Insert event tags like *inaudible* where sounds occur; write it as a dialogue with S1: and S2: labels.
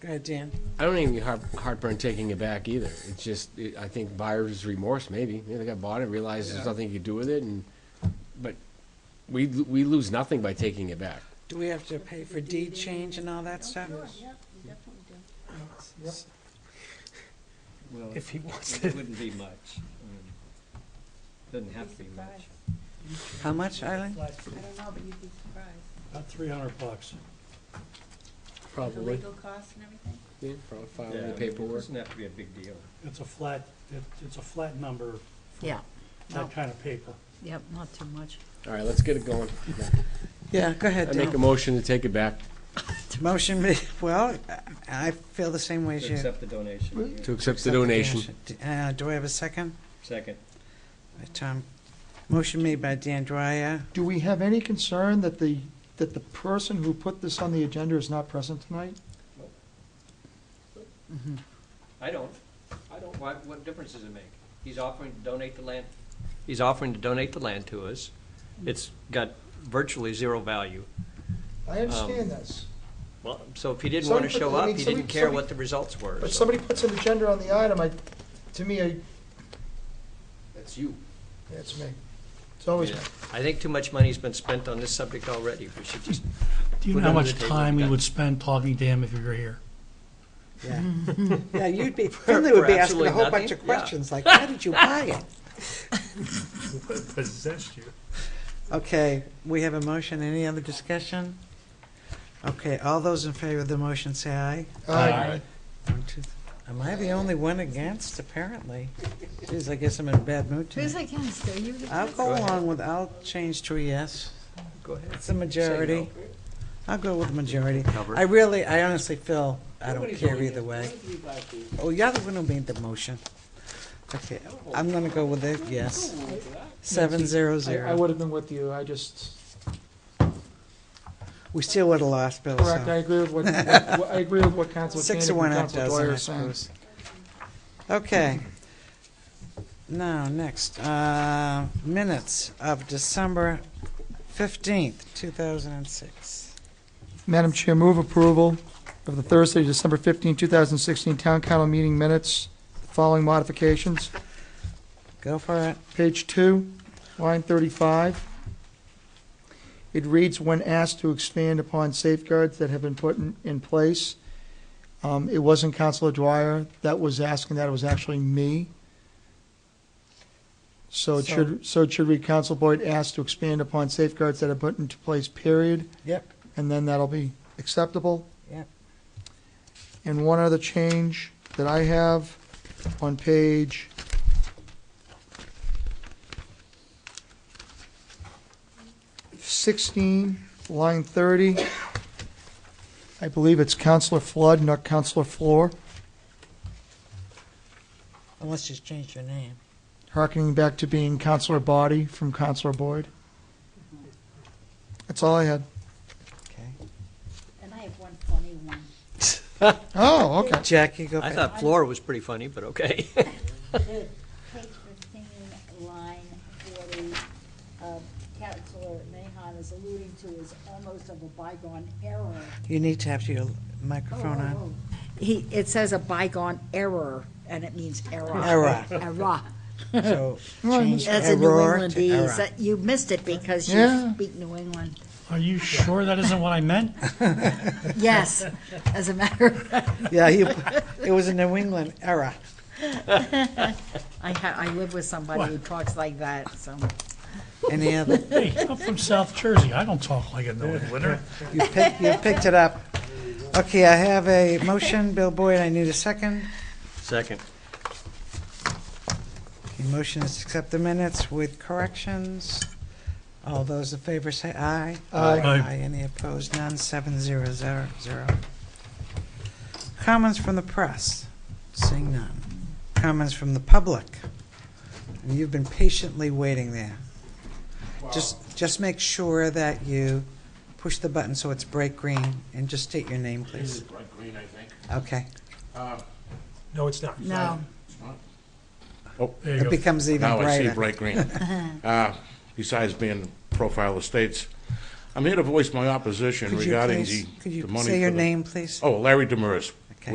S1: Go ahead, Dan.
S2: I don't even get heart- heartburn taking it back either. It's just, it- I think buyer's remorse, maybe. You know, They got bought it, realized there's
S3: Yeah.
S2: nothing you could do with it, and, but we, l- we lose nothing by taking it back.
S1: Do we have to pay for deed change and all that stuff?
S4: Yep, you definitely do.
S3: Well,
S5: if he wants
S3: it
S5: it.
S3: wouldn't be much. Um, Doesn't have to be much.
S1: How much, Eileen?
S4: I don't know, but you'd be surprised.
S5: About three hundred bucks.
S4: The legal costs and everything.
S2: Yeah, probably
S3: Yeah,
S2: filing
S3: I
S2: the
S3: mean, It
S2: paperwork.
S3: doesn't have to be a big deal.
S5: It's a flat, it, it's a flat number,
S6: Yeah, No.
S5: that kind of paper.
S6: yep, not too much.
S2: All right, let's get it *laughs* going.
S1: Yeah, go ahead,
S2: I make a
S1: Dan.
S2: motion to take it back,
S1: Motion, ma- well, I I feel the same way as
S3: To
S1: you.
S3: accept the donation.
S2: to accept the donation.
S1: Uh, do I have a second?
S3: Second.
S1: By Tom, motion made by Dan Dwyer.
S7: Do we have any concern that the, that the person who put this on the agenda is not present tonight?
S3: I don't, I don't, why, what difference does it make? He's offering to donate the land. He's offering to donate the land to us. It's got virtually zero value.
S7: I understand this,
S3: Well, So if he didn't want to
S7: Somebody-
S3: show
S7: I
S3: up,
S7: mean,
S3: he didn't
S7: somebody-
S3: care
S7: somebody-
S3: what the results were.
S7: but
S3: so-
S7: somebody puts an agenda on the item, I, to me, I,
S2: That's you.
S7: it's me. It's always
S3: Yeah.
S7: me.
S3: I think too much money's been spent on this subject already. We should just,
S5: Do you
S3: Put
S5: know how
S3: it on the
S5: much
S3: table,
S5: time we
S3: yeah.
S5: would spend talking to him if he were here?
S1: Yeah, *laughs* Yeah, you'd
S3: *laughs*
S1: be, Finley would
S3: for
S1: be asking
S3: absolutely
S1: a whole bunch
S3: nothing?
S1: of
S3: Yeah.
S1: questions, like, how
S3: *laughs*
S1: did you buy it?
S5: Possessed you.
S1: Okay, we have a motion. Any other discussion? Okay, all those in favor of the motion say aye.
S7: Aye.
S1: One, two, th- Am I the only one against, apparently? Geez, I guess I'm in a bad mood
S6: Who's
S1: tonight.
S6: against, are you against?
S1: I'll go
S3: Go ahead.
S1: along with, I'll change to a yes.
S3: go ahead.
S1: It's a majority. I'll go with the majority.
S3: Cover.
S1: I really, I honestly feel, I don't care either way. Oh, you're the one who made the motion. Okay, I'm gonna go with it, yes. Seven zero
S7: I,
S1: zero.
S7: I would have been with you, I just,
S1: We still would have lost, Bill,
S7: correct, I
S1: so. *laughs*
S7: agree with what, what- I agree with what Council
S1: Six
S7: Koenig
S1: to one,
S7: and
S1: half
S7: Council
S1: dozen,
S7: Dwyer
S1: I
S7: are saying.
S1: suppose. Okay. Now, next, uh, minutes of December fifteenth, two thousand and six.
S7: Madam Chair, move approval of the Thursday, December 15, 2016 Town Council meeting minutes, following modifications.
S1: Go for it.
S7: Page two, line thirty-five. It reads, when asked to expand upon safeguards that have been put in, in place. Um, it wasn't Counselor Dwyer that was asking that, it was actually me. So it
S1: So-
S7: should, so it should read, Council Boyd asked to expand upon safeguards that are put into place, period,
S1: Yep.
S7: and then that'll be acceptable.
S1: Yep.
S7: And one other change that I have on page sixteen, line thirty. I believe it's Counselor Flood, not Counselor Floor,
S1: Unless you change your name.
S7: harkening back to being Counselor Body from Counselor Boyd. That's all I had.
S1: Okay.
S4: And I have one funny one.
S7: Oh, okay.
S1: Jackie, go
S3: I
S1: ahead.
S3: thought floor was pretty funny, but okay. *laughs*
S4: The Page fifteen, line forty, uh, Counselor Mahon is alluding to is almost of a bygone error.
S1: You need to have your microphone
S4: Oh,
S1: on.
S4: oh, oh. He, it says a bygone error, and it means error.
S1: Error.
S4: Error.
S1: So
S7: Well,
S1: change
S6: As a New
S1: error to
S6: Englandese,
S1: error.
S6: that- you missed it because you
S7: Yeah.
S6: speak New England.
S5: Are you sure that isn't what I meant?
S6: Yes, as a matter of fact,
S1: Yeah, you, it was a New England error.
S6: I ha, I live with somebody who talks like that, so.
S1: Any other,
S5: Hey, I'm from South Jersey, I don't talk like a New Englander.
S1: you picked, you picked it up. Okay, I have a motion, Bill Boyd, I need a second.
S3: Second.
S1: The motion is to accept the minutes with corrections. All those in favor say aye.
S7: Aye.
S5: Aye.
S1: Any opposed? None. Seven zero zero zero. Comments from the press? Seeing none. Comments from the public? And you've been patiently waiting there. Just, just make sure that you push the button so it's bright green and just state your name, please.
S2: Bright green, I think.
S1: Okay.
S5: No, it's not.
S6: No,
S5: There you
S1: It
S5: go.
S1: becomes even *laughs*
S8: Now I see
S1: brighter.
S8: bright green. Uh, Besides being profile estates, I'm here to voice my opposition
S1: Could you
S8: regarding
S1: please-
S8: the
S1: Could you
S8: the money
S1: say
S8: for
S1: your
S8: the-
S1: name, please?
S8: Oh, Larry Demers,
S1: Okay.